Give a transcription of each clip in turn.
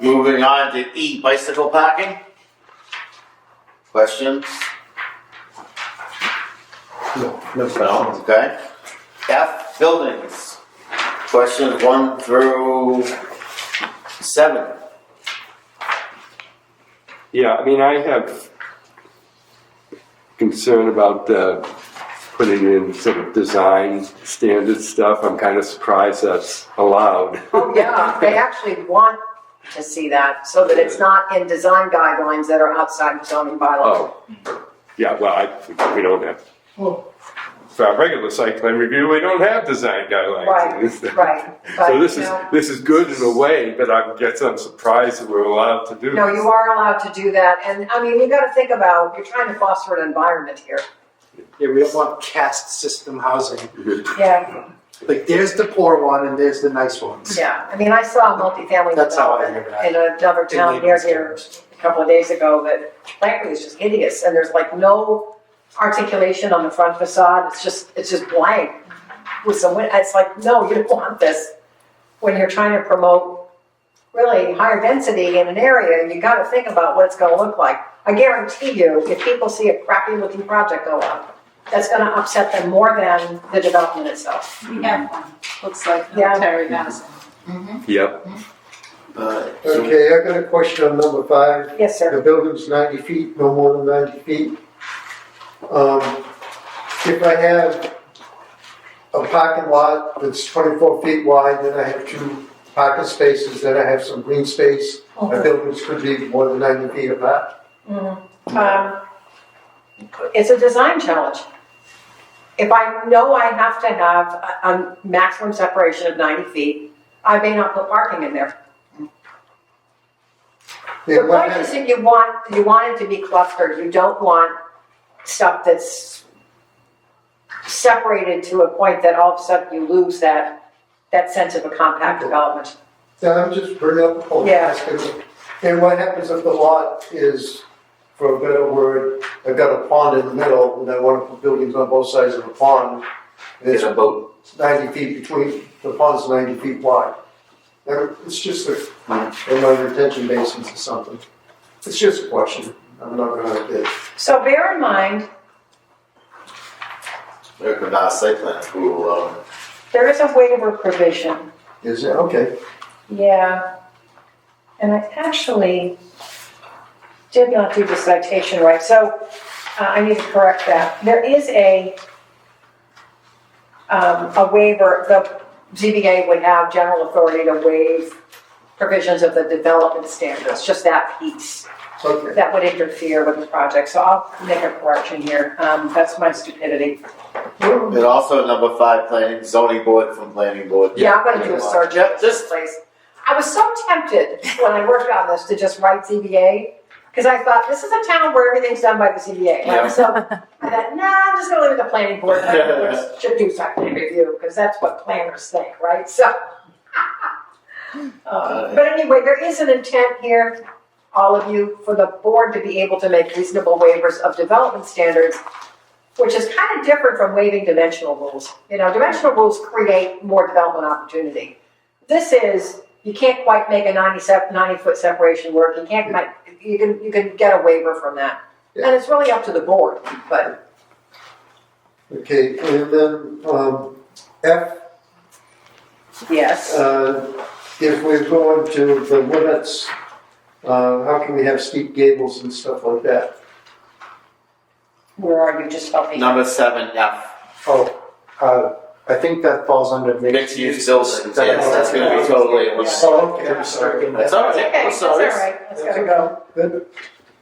Moving on to E, bicycle parking. Questions? No No, questions. okay. F, buildings. Questions one through seven. Yeah, I mean, I have concern about uh, putting in sort of design standard stuff. I'm kind of surprised that's allowed. Oh, yeah, they actually want to see that, so that it's not in design guidelines that are outside the zoning bylaws. Oh, yeah, well, I, we don't have, for our regular site plan review, we don't have design guidelines. Right, right. but, So this you is, know, this is good in a way, but I guess I'm surprised that we're allowed to do this. No, you are allowed to do that, and, I mean, you gotta think about, you're trying to foster an environment here. Yeah, we don't want caste system housing. Yeah, Like, there's the poor one and there's the nice ones. yeah, I mean, I saw a multifamily That's how I development hear that. in another In town near layman's here terms. a couple of days ago that frankly is just hideous, and there's like no articulation on the front facade, it's just, it's just blank. With some, win- it's like, no, you don't want this, when you're trying to promote really higher density in an area, you gotta think about what it's gonna look like. I guarantee you, if people see a crappy looking project go up, that's gonna upset them more than the development itself. We have one, looks like Yeah. military medicine. Yep, Uh, so- Okay, I got a question on number five. Yes, sir. The building's ninety feet, no more than ninety feet. Um, if I have a parking lot that's twenty-four feet wide, then I have two parking spaces, then I have some green space. My buildings could be more than ninety feet apart. um, it's a design challenge. If I know I have to have a, a maximum separation of ninety feet, I may not put parking in there. The Then what point is hap- that you want, you want it to be clustered, you don't want stuff that's separated to a point that all of a sudden you lose that, that sense of a compact development. Then I'm just bringing up oh, a point, Yeah. asking, and what happens if the lot is, for a better word, I've got a pond in the middle, and I wanna put buildings on both sides of the pond. and There's It's a boat. ninety feet between, the pond's ninety feet wide. There- It's just a, in my retention basins or something. It's just a question, I'm not gonna, uh, get- So bear in mind, There could not site plan approval, um, there is a waiver provision is it, okay, Yeah, and I actually did not do the citation right, so uh, I need to correct that. There is a, um, a waiver, the ZBA would have general authority to waive provisions of the development standards, just that piece, okay. that would interfere with the project, so I'll make a correction here, um, that's my stupidity. and also number five, planning, zoning board from planning board. Yeah, I'm gonna do a search Yeah, of just- this place. I was so tempted when I worked on this to just write ZBA, because I thought, this is a town where everything's done by the ZBA. Yeah. So I thought, nah, I'm just gonna leave it to planning board, planning board should do site plan review, because that's what planners think, right? So. Uh, But anyway, there is an intent here, all of you, for the board to be able to make reasonable waivers of development standards, which is kind of different from waiving dimensional rules. You know, dimensional rules create more development opportunity this is, you can't quite make a 90 sep- 90 foot separation work, you can't, make- you can, you can get a waiver from that. And it's really up to the board, but, Okay, and then, um, F, yes. uh, if we're going to the limits, uh, how can we have steep gables and stuff like that? Where are you, just helping? Number seven, F, Oh, uh, I think that falls under mixed, mixed use buildings, that- yes, that's gonna be totally. Oh, okay, I'm sorry. That's all right, Okay, I'm that's all sorry. right, that's gotta go. Good.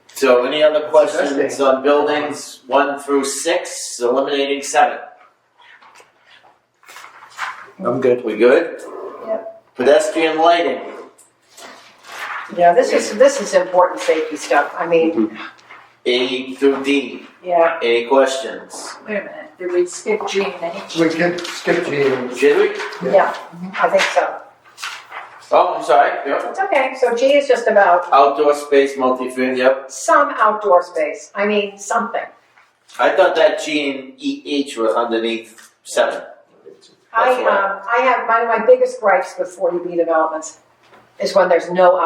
So any other That's questions interesting. on buildings one through six, eliminating seven? I'm good. We good? Pedestrian lighting, Yeah, this is, this is important safety stuff, I mean, A through D, yeah, any questions? Wait a minute, did we skip G and H? We could skip G and Should we? yeah, I think so. Oh, I'm sorry, yeah. It's okay, so G is just about Outdoor space multi-family, yep. some outdoor space, I mean, something. I thought that G and E H was underneath seven. I, That's right. um, I have, one of my biggest gripes with 40B developments is when there's no